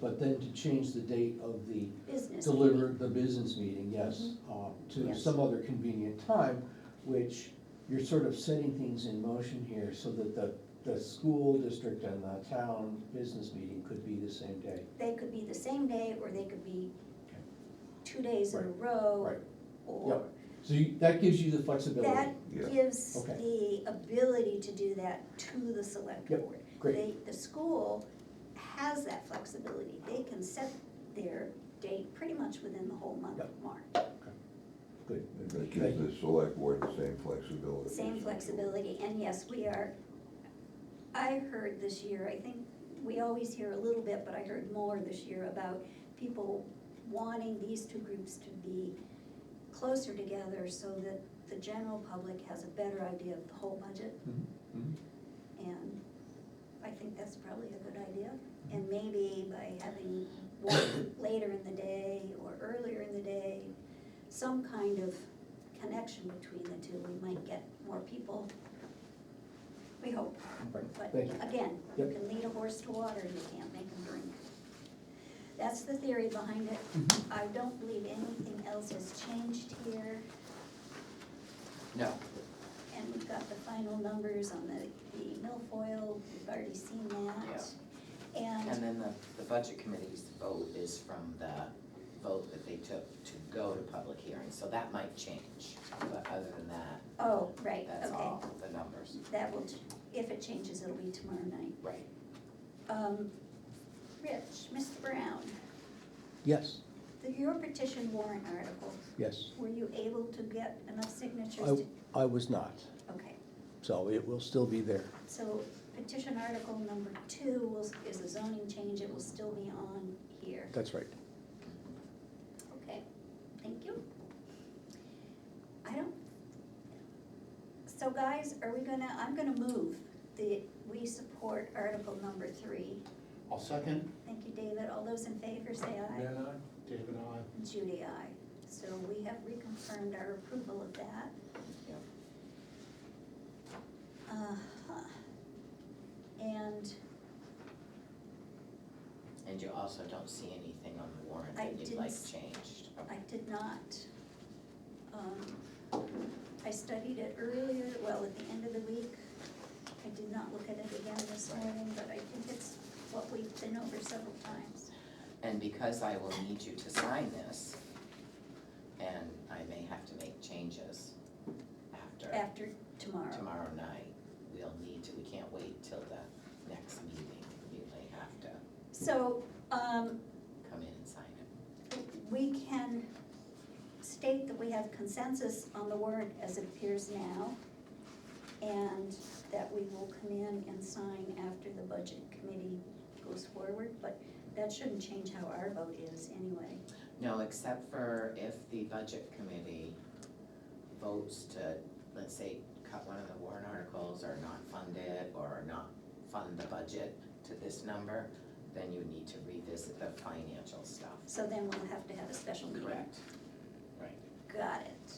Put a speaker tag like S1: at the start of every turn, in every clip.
S1: But then to change the date of the
S2: business. Mm-hmm.
S1: deliver the business meeting, yes, um, to
S2: Yes.
S1: some other convenient time, which you're sort of setting things in motion here so that the, the school district and the town business meeting could be the same day.
S2: They could be the same day, or they could be two days in a
S1: Right,
S2: row.
S1: right,
S2: Or,
S1: So you, that gives you the flexibility.
S2: that
S3: Yeah.
S2: gives
S1: Okay.
S2: the ability to do that to the select
S1: Yep,
S2: board.
S1: great.
S2: They, the school has that flexibility, they can set their date pretty much within the whole month of March.
S1: Good.
S3: And That gives the select board the same flexibility.
S2: Same flexibility, and yes, we are, I heard this year, I think, we always hear a little bit, but I heard more this year about people wanting these two groups to be closer together so that the general public has a better idea of the whole budget.
S1: Mhm, mhm.
S2: And I think that's probably a good idea. And
S1: Mm-hmm.
S2: maybe by having one later in the day or earlier in the day, some kind of connection between the two, we might get more people. We hope.
S1: Right,
S2: But
S1: thank you.
S2: again, you
S1: Yep.
S2: can lead a horse to water, you can't make him drink. That's the theory behind it.
S1: Mhm.
S2: I don't believe anything else has changed here.
S1: Now,
S2: And we've got the final numbers on the, the milfoil, we've already seen that.
S4: And
S2: And,
S4: then the, the budget committee's vote is from the vote that they took to go to public hearing, so that might change. But other than that,
S2: oh, right,
S4: that's
S2: okay,
S4: all the numbers,
S2: that will, ch- if it changes, it'll be tomorrow night.
S4: right?
S2: Um, Rich, Mr. Brown,
S1: yes,
S2: the- your petition warrant article,
S1: yes,
S2: were you able to get enough signatures
S1: I,
S2: to?
S1: I was not,
S2: Okay,
S1: so it will still be there.
S2: so petition article number two will, is a zoning change, it will still be on here.
S1: That's right.
S2: Okay, thank you. I don't, so guys, are we gonna, I'm gonna move the, we support article number three.
S5: I'll second.
S2: Thank you, David. All those in favor say aye.
S5: Van I, David I.
S2: Judy, aye. So we have reconfirmed our approval of that.
S4: Yeah.
S2: Uh-huh. And
S4: And you also don't see anything on the warrant
S2: I
S4: that you'd
S2: didn't
S4: like
S2: s-
S4: changed.
S2: I did not, um, I studied it earlier, well, at the end of the week. I did not look at it again this morning, but I think it's what we've been over several times.
S4: And because I will need you to sign this, and I may have to make changes after
S2: After tomorrow,
S4: tomorrow night, we'll need to, we can't wait till the next meeting. You may have to
S2: so, um,
S4: come in and sign it.
S2: we can state that we have consensus on the warrant as it appears now, and that we will come in and sign after the budget committee goes forward, but that shouldn't change how our vote is anyway.
S4: No, except for if the budget committee votes to, let's say, cut one of the warrant articles or not fund it or not fund the budget to this number, then you need to revisit the financial stuff.
S2: So then we'll have to have a special meeting.
S4: Correct. Right.
S2: Got it.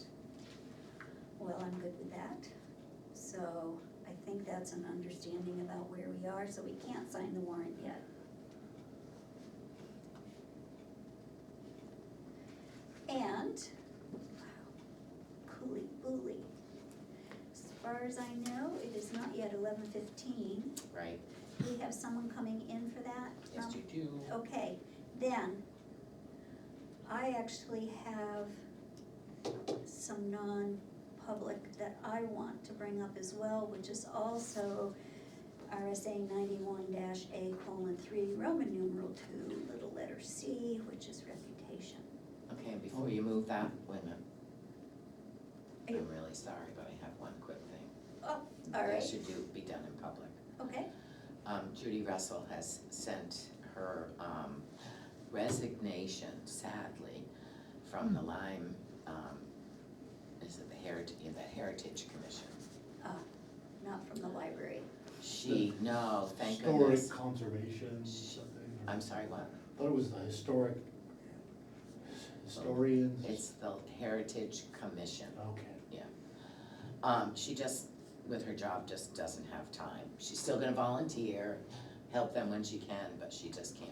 S2: Well, I'm good with that. So I think that's an understanding about where we are, so we can't sign the warrant yet. And, wow, cooly bully. As far as I know, it is not yet eleven fifteen.
S4: Right,
S2: We have someone coming in for that um, from
S4: yes, you do.
S2: Okay, then, I actually have some non-public that I want to bring up as well, which is also RSA ninety-one dash A colon three, Roman numeral two, little letter C, which is reputation.
S4: Okay, and before you move that, wait a minute.
S2: Are you-
S4: I'm really sorry, but I have one quick thing.
S2: Oh, all right.
S4: That should do, be done in public.
S2: Okay,
S4: Um, Judy Russell has sent her, um, resignation sadly from the Lyme, um, is it the Heritage, the Heritage Commission.
S2: Uh, not from the library.
S4: She, no, thank goodness.
S5: Historic conservation, something. or-
S4: I'm sorry, what?
S5: Thought it was the historic historians.
S4: It's the Heritage Commission.
S5: Okay.
S4: Um, she just, with her job, just doesn't have time. She's still gonna volunteer, help them when she can, but she just can't